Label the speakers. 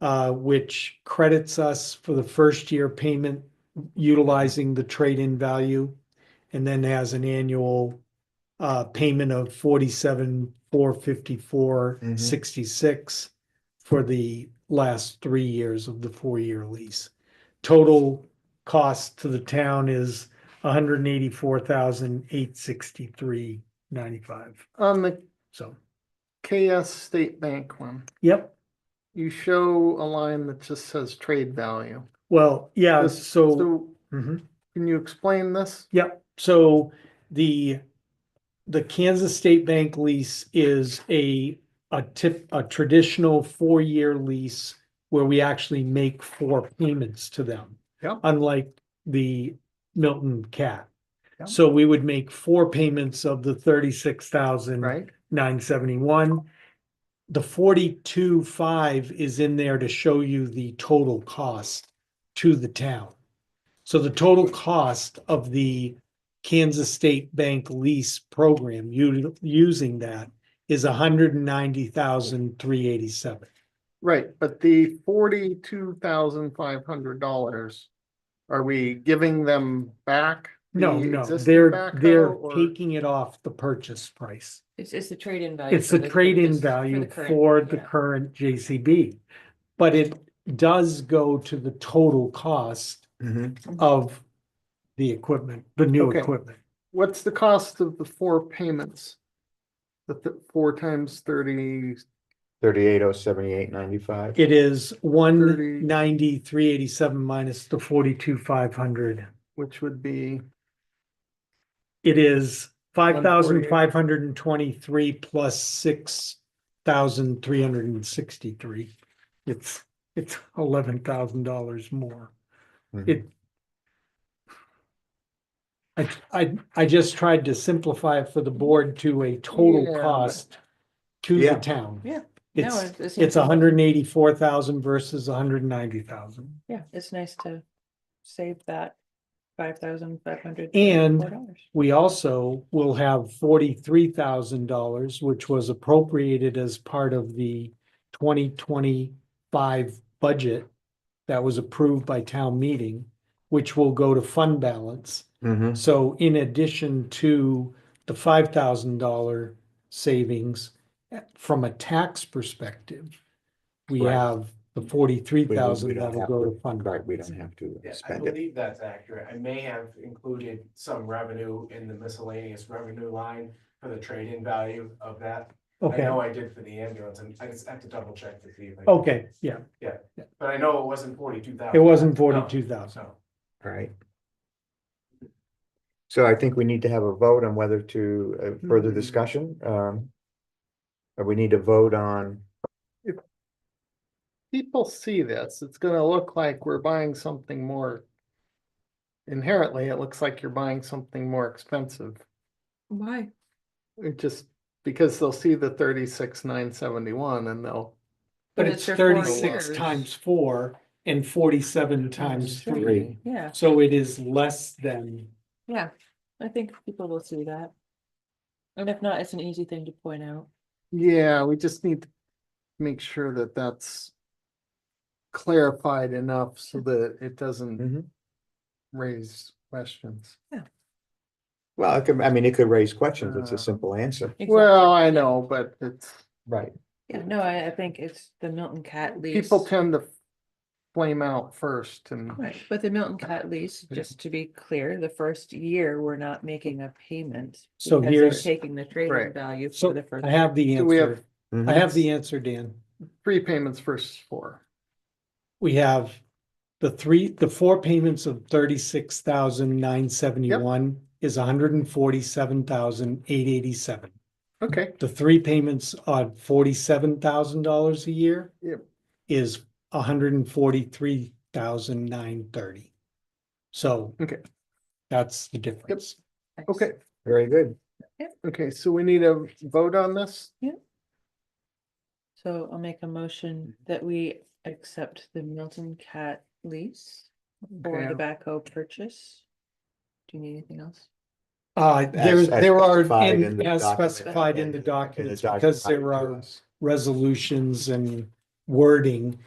Speaker 1: uh, which credits us for the first year payment utilizing the trade-in value and then has an annual uh, payment of forty-seven, four fifty-four,
Speaker 2: Mhm.
Speaker 1: sixty-six for the last three years of the four-year lease. Total cost to the town is one hundred and eighty-four thousand eight sixty-three ninety-five.
Speaker 3: On the
Speaker 1: So,
Speaker 3: KS State Bank one,
Speaker 1: yep.
Speaker 3: you show a line that just says trade value.
Speaker 1: Well, yeah,
Speaker 3: This-
Speaker 1: so.
Speaker 3: So
Speaker 1: Mhm.
Speaker 3: can you explain this?
Speaker 1: Yep, so the, the Kansas State Bank lease is a, a tip, a traditional four-year lease where we actually make four payments to them.
Speaker 3: Yep.
Speaker 1: Unlike the Milton Cat.
Speaker 3: Yep.
Speaker 1: So we would make four payments of the thirty-six thousand
Speaker 3: Right?
Speaker 1: nine seventy-one. The forty-two five is in there to show you the total cost to the town. So the total cost of the Kansas State Bank lease program, u- using that is a hundred and ninety thousand, three eighty-seven.
Speaker 3: Right, but the forty-two thousand five hundred dollars, are we giving them back?
Speaker 1: No,
Speaker 3: the
Speaker 1: no,
Speaker 3: existing
Speaker 1: they're,
Speaker 3: backhoe,
Speaker 1: they're
Speaker 3: or-
Speaker 1: taking it off the purchase price.
Speaker 4: It's, it's the trade-in value.
Speaker 1: It's
Speaker 4: for
Speaker 1: the
Speaker 4: for
Speaker 1: trade-in
Speaker 4: this-
Speaker 1: value
Speaker 4: current-
Speaker 1: for the
Speaker 4: yeah.
Speaker 1: current JCB. But it does go to the total cost
Speaker 2: Mhm.
Speaker 1: of the equipment, the new
Speaker 3: Okay.
Speaker 1: equipment.
Speaker 3: What's the cost of the four payments? The th- four times thirty,
Speaker 2: Thirty-eight oh seventy-eight ninety-five.
Speaker 1: It is one
Speaker 3: Thirty.
Speaker 1: ninety, three eighty-seven minus the forty-two, five hundred.
Speaker 3: which would be,
Speaker 1: It is five thousand
Speaker 3: 148.
Speaker 1: five hundred and twenty-three plus six thousand three hundred and sixty-three. It's, it's eleven thousand dollars more. It. I, I, I just tried to simplify it for the board to a total
Speaker 3: Yeah.
Speaker 1: cost to the
Speaker 2: Yeah.
Speaker 1: town.
Speaker 4: Yeah. No,
Speaker 1: It's,
Speaker 4: it's-
Speaker 1: It's a hundred and eighty-four thousand versus a hundred and ninety thousand.
Speaker 4: Yeah, it's nice to save that five thousand five hundred.
Speaker 1: And
Speaker 4: dollars.
Speaker 1: We also will have forty-three thousand dollars, which was appropriated as part of the twenty twenty-five budget that was approved by town meeting, which will go to fund balance.
Speaker 2: Mhm.
Speaker 1: So in addition to the five thousand dollar savings, eh, from a tax perspective, we
Speaker 2: Right.
Speaker 1: have the forty-three
Speaker 2: We- we
Speaker 1: thousand
Speaker 2: don't
Speaker 1: that'll
Speaker 2: have
Speaker 1: go
Speaker 2: to-
Speaker 1: to fund balance.
Speaker 2: Right, we don't have to
Speaker 5: Yeah, I
Speaker 2: spend it.
Speaker 5: believe that's accurate. I may have included some revenue in the miscellaneous revenue line for the trade-in value of that. I
Speaker 1: Okay,
Speaker 5: know I did for the ambulance, and I just have to double check to see. if I-
Speaker 1: okay, yeah,
Speaker 5: But I know it wasn't forty-two thousand.
Speaker 1: it wasn't forty-two thousand.
Speaker 5: So,
Speaker 2: Right. So I think we need to have a vote on whether to, uh, further
Speaker 1: Mhm.
Speaker 2: discussion, um. Or we need to vote on,
Speaker 3: people see this, it's gonna look like we're buying something more. Inherently, it looks like you're buying something more expensive.
Speaker 4: Why?
Speaker 3: It just, because they'll see the thirty-six, nine seventy-one and they'll,
Speaker 1: But
Speaker 4: But
Speaker 1: it's
Speaker 4: it's their four
Speaker 1: thirty-six
Speaker 4: years.
Speaker 1: times four and forty-seven times
Speaker 4: Sure.
Speaker 1: three,
Speaker 4: Yeah,
Speaker 1: so it is less than,
Speaker 4: yeah, I think people will see that. And if not, it's an easy thing to point out.
Speaker 3: yeah, we just need to make sure that that's clarified enough so
Speaker 4: Mm-hmm.
Speaker 3: that it doesn't
Speaker 2: Mhm.
Speaker 3: raise questions.
Speaker 2: well, it could, I mean, it could raise questions. It's
Speaker 3: Uh,
Speaker 2: a simple answer.
Speaker 4: Exactly.
Speaker 3: Well, I know, but it's,
Speaker 2: Right.
Speaker 4: Yeah, no, I, I think it's the Milton Cat lease.
Speaker 3: people tend to flame out first and,
Speaker 4: Right, but the Milton Cat lease,
Speaker 3: Yeah.
Speaker 4: just to be clear, the first year, we're not making a payment.
Speaker 1: So
Speaker 4: because they're
Speaker 1: here's-
Speaker 4: Taking the
Speaker 3: Right.
Speaker 4: trade-in value
Speaker 1: So
Speaker 4: for the first.
Speaker 1: I have the
Speaker 3: Do we have-
Speaker 1: answer,
Speaker 2: Mm-hmm.
Speaker 1: I have the answer, Dan.
Speaker 3: three payments versus four.
Speaker 1: We have the three, the four payments of thirty-six thousand nine seventy-one is a hundred and forty-seven thousand eight eighty-seven.
Speaker 3: Okay,
Speaker 1: The three payments on forty-seven thousand dollars a year
Speaker 3: Yep.
Speaker 1: is a hundred and forty-three thousand nine thirty. So
Speaker 3: Okay.
Speaker 1: that's the difference.
Speaker 3: okay,
Speaker 2: Very good.
Speaker 3: okay, so we need a vote on this?
Speaker 4: So I'll make a motion
Speaker 1: Mm-hmm.
Speaker 4: that we accept the Milton Cat lease for the
Speaker 3: Okay.
Speaker 4: backhoe purchase. Do you need anything else?
Speaker 1: Uh, there,
Speaker 2: As- as
Speaker 1: there are,
Speaker 2: specified in
Speaker 1: in-
Speaker 2: the
Speaker 1: as
Speaker 2: document
Speaker 1: specified in
Speaker 2: and-
Speaker 1: the
Speaker 2: and the
Speaker 1: documents, because
Speaker 2: document
Speaker 1: there are
Speaker 2: to us.
Speaker 1: resolutions and wording